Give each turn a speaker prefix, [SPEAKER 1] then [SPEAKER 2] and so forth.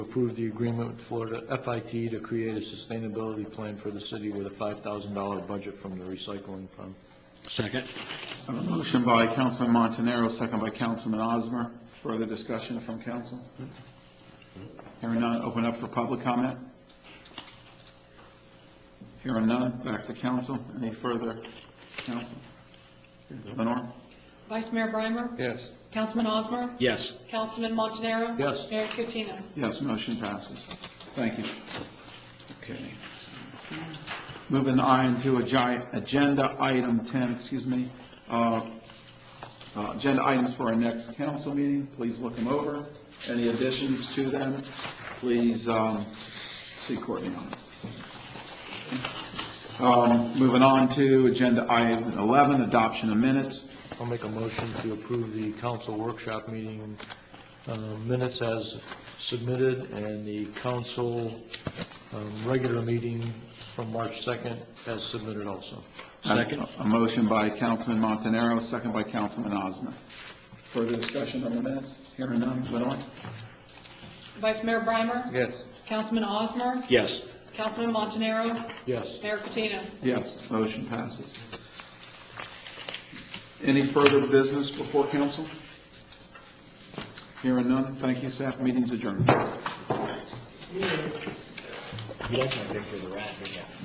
[SPEAKER 1] approve the agreement with Florida FIT to create a sustainability plan for the city with a $5,000 budget from the recycling fund.
[SPEAKER 2] Second.
[SPEAKER 3] I have a motion by Councilman Montanaro, second by Councilman Osmer. Further discussion from council? Hearing none, open up for public comment. Hearing none, back to council. Any further, council? Lenore?
[SPEAKER 4] Vice Mayor Breimer?
[SPEAKER 1] Yes.
[SPEAKER 4] Councilman Osmer?
[SPEAKER 2] Yes.
[SPEAKER 4] Councilman Montanaro?
[SPEAKER 1] Yes.
[SPEAKER 4] Mayor Cuttino?
[SPEAKER 3] Yes, motion passes. Thank you. Okay. Moving on to agi- agenda item 10, excuse me, uh, uh, agenda items for our next council meeting, please look them over. Any additions to them, please um, see Courtney on it. Um, Moving on to agenda item 11, adoption of minutes.
[SPEAKER 1] I'll make a motion to approve the council workshop meeting uh, minutes as submitted and the council um, regular meeting from March 2nd as submitted also.
[SPEAKER 2] Second.
[SPEAKER 3] A motion by Councilman Montanaro, second by Councilman Osmer. Further discussion on the minutes? Hearing none, Lenore?
[SPEAKER 4] Vice Mayor Breimer?
[SPEAKER 1] Yes.
[SPEAKER 4] Councilman Osmer?
[SPEAKER 2] Yes.
[SPEAKER 4] Councilman Montanaro?
[SPEAKER 1] Yes.
[SPEAKER 4] Mayor Cuttino?
[SPEAKER 3] Yes, motion passes. Any further business before council? Hearing none, thank you, staff, meeting's adjourned.